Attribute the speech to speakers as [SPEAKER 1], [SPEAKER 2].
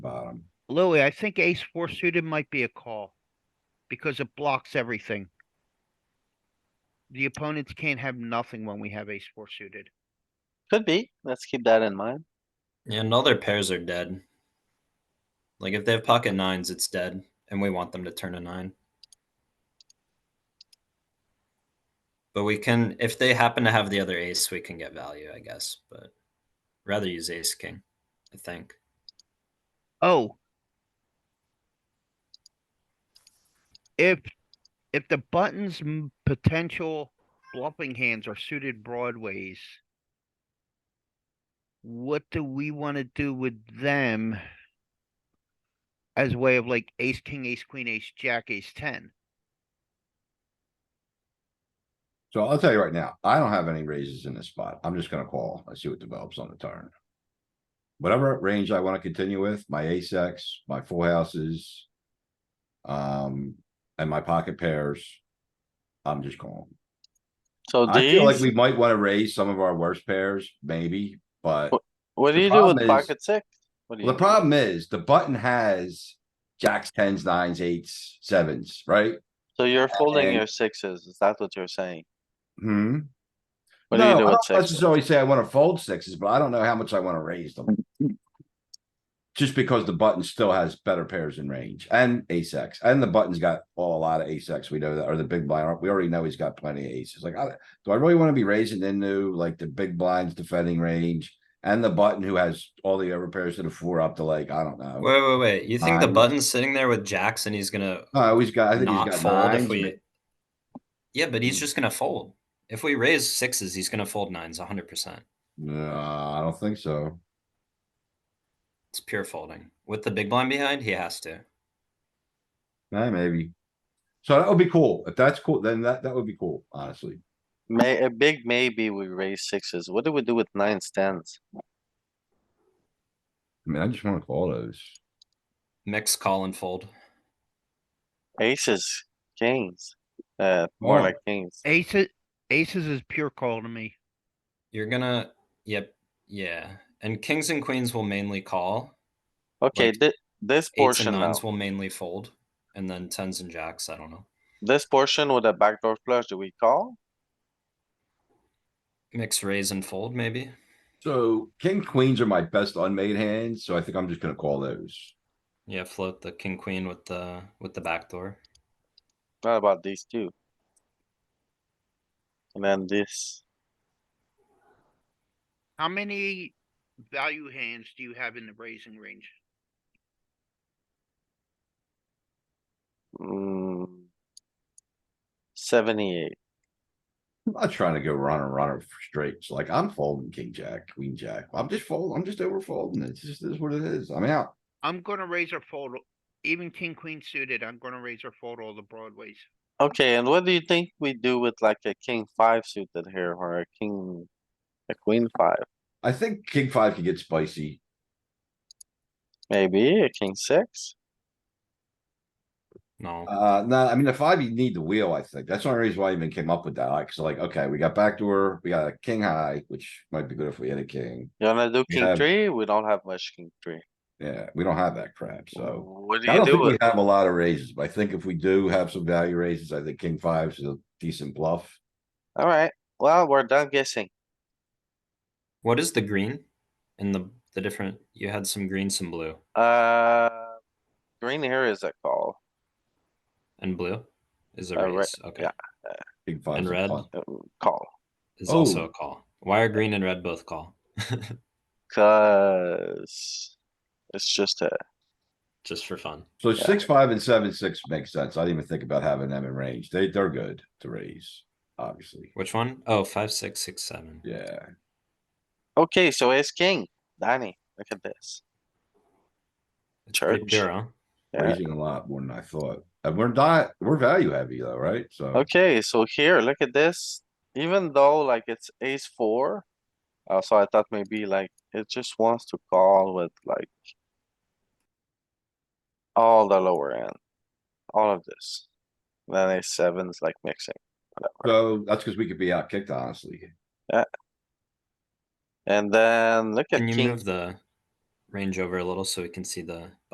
[SPEAKER 1] bottom.
[SPEAKER 2] Louis, I think ace four suited might be a call. Because it blocks everything. The opponents can't have nothing when we have ace four suited.
[SPEAKER 3] Could be. Let's keep that in mind.
[SPEAKER 4] Yeah, and all their pairs are dead. Like if they have pocket nines, it's dead, and we want them to turn a nine. But we can, if they happen to have the other ace, we can get value, I guess. But rather use ace king, I think.
[SPEAKER 2] Oh. If, if the buttons m- potential bluffing hands are suited broadways. What do we wanna do with them? As a way of like ace, king, ace, queen, ace, jack, ace, ten?
[SPEAKER 1] So I'll tell you right now, I don't have any raises in this spot. I'm just gonna call. I see what develops on the turn. Whatever range I wanna continue with, my ace X, my full houses. Um, and my pocket pairs. I'm just calling.
[SPEAKER 3] So
[SPEAKER 1] I feel like
[SPEAKER 3] these,
[SPEAKER 1] we might wanna raise some of our worst pairs, maybe, but
[SPEAKER 3] what do
[SPEAKER 1] the
[SPEAKER 3] you do with
[SPEAKER 1] problem is-
[SPEAKER 3] pocket six? What do you
[SPEAKER 1] the
[SPEAKER 3] do?
[SPEAKER 1] problem is the button has. Jacks, tens, nines, eights, sevens, right?
[SPEAKER 3] So you're folding
[SPEAKER 1] and-
[SPEAKER 3] your sixes. Is that what you're saying?
[SPEAKER 1] Hmm.
[SPEAKER 3] What do
[SPEAKER 1] no,
[SPEAKER 3] you do
[SPEAKER 1] I
[SPEAKER 3] with
[SPEAKER 1] don't
[SPEAKER 3] sixes?
[SPEAKER 1] necessarily say I wanna fold sixes, but I don't know how much I wanna raise them. Just because the button still has better pairs in range and ace X, and the button's got all a lot of ace X, we know that, or the big blind, we already know he's got plenty of aces, like, I, do I really wanna be raising into like the big blinds defending range? And the button who has all the other pairs to the four up to like, I don't know,
[SPEAKER 4] Wait, wait, wait. You think the
[SPEAKER 1] Oh. Nine.
[SPEAKER 4] button's sitting there with jacks and he's gonna
[SPEAKER 1] I always got, I think
[SPEAKER 4] not
[SPEAKER 1] he's
[SPEAKER 4] fold
[SPEAKER 1] got
[SPEAKER 4] if
[SPEAKER 1] nines, Hmm.
[SPEAKER 4] we. Yeah, but he's just gonna fold. If we raise sixes, he's gonna fold nines 100%.
[SPEAKER 1] no, I don't think so,
[SPEAKER 4] It's pure folding. With the big blind behind, he has to.
[SPEAKER 1] Eh, maybe. So that would be cool, if that's cool, then that, that would be cool, honestly.
[SPEAKER 3] May, a big maybe we raise sixes. What do we do with nines, tens?
[SPEAKER 1] I mean, I just wanna call those.
[SPEAKER 4] Mix, call, and fold.
[SPEAKER 3] Aces, kings, uh, more
[SPEAKER 1] Oh.
[SPEAKER 3] like kings.
[SPEAKER 2] Aces, aces is pure call to me.
[SPEAKER 4] You're gonna, yep, yeah. And kings and queens will mainly call.
[SPEAKER 3] Okay,
[SPEAKER 4] like,
[SPEAKER 3] thi- this
[SPEAKER 4] Eights and
[SPEAKER 3] portion now,
[SPEAKER 4] nines will mainly fold, and then tens and jacks. I don't know.
[SPEAKER 3] this portion with a backdoor flush, do we call?
[SPEAKER 4] Mix raise and fold maybe.
[SPEAKER 1] So king queens are my best unmade hands, so I think I'm just gonna call those.
[SPEAKER 4] Yeah, float the king queen with the with the back door.
[SPEAKER 3] Not about these two. And then this,
[SPEAKER 2] How many value hands do you have in the raising range?
[SPEAKER 3] mm, seventy-eight.
[SPEAKER 1] I'm not trying to go runner, runner for straights, like I'm folding king, jack, queen, jack, I'm just folding, I'm just over folding, it's just is what it is, I'm out.
[SPEAKER 2] I'm gonna raise or fold, even king, queen suited, I'm gonna raise or fold all the broadways.
[SPEAKER 3] Okay, and what do you think we do with like a king five suited here or a king, a queen five?
[SPEAKER 1] I think king five can get spicy,
[SPEAKER 3] Maybe a king six?
[SPEAKER 4] No.
[SPEAKER 1] uh, no, I mean, the five, you need the wheel, I think, that's the only reason why I even came up with that, like, so like, okay, we got backdoor, we got a king high, which might be good if we had a king.
[SPEAKER 3] You wanna do
[SPEAKER 1] We
[SPEAKER 3] king
[SPEAKER 1] have-
[SPEAKER 3] three? We don't have much king three.
[SPEAKER 1] Yeah, we don't have that crap, so,
[SPEAKER 3] What do
[SPEAKER 1] I
[SPEAKER 3] you
[SPEAKER 1] don't
[SPEAKER 3] do
[SPEAKER 1] think we
[SPEAKER 3] with?
[SPEAKER 1] have a lot of raises, but I think if we do have some value raises, I think king five's a decent bluff.
[SPEAKER 3] Alright, well, we're done guessing.
[SPEAKER 4] What is the green? In the the different you had some green, some blue,
[SPEAKER 3] Uh, green here is a call.
[SPEAKER 4] and blue is a
[SPEAKER 3] Uh,
[SPEAKER 4] raise.
[SPEAKER 3] re-
[SPEAKER 4] okay,
[SPEAKER 3] yeah.
[SPEAKER 1] King five's
[SPEAKER 4] And
[SPEAKER 1] a
[SPEAKER 4] red.
[SPEAKER 1] punt.
[SPEAKER 3] uh, Call,
[SPEAKER 4] is also
[SPEAKER 1] Oh.
[SPEAKER 4] a call. Why are green and red both call?
[SPEAKER 3] cuz it's just a,
[SPEAKER 4] Just for fun.
[SPEAKER 1] So
[SPEAKER 3] Yeah.
[SPEAKER 1] six, five and seven, six makes sense. I didn't even think about having them in range. They, they're good to raise, obviously.
[SPEAKER 4] Which one? Oh, five, six, six, seven.
[SPEAKER 1] Yeah,
[SPEAKER 3] okay, so ace king, Danny, look at this.
[SPEAKER 4] It's pretty
[SPEAKER 3] Church.
[SPEAKER 4] pure, huh?
[SPEAKER 3] Yeah.
[SPEAKER 1] raising a lot more than I thought. And we're not, we're value heavy though, right? So
[SPEAKER 3] Okay, so here, look at this, even though like it's ace four. Uh, so I thought maybe like it just wants to call with like. All the lower end, all of this. Then ace seven is like mixing, whatever.
[SPEAKER 1] so that's because we could be out kicked honestly.
[SPEAKER 3] And then look at
[SPEAKER 4] Can you
[SPEAKER 3] king,
[SPEAKER 4] move the range over a little so we can see the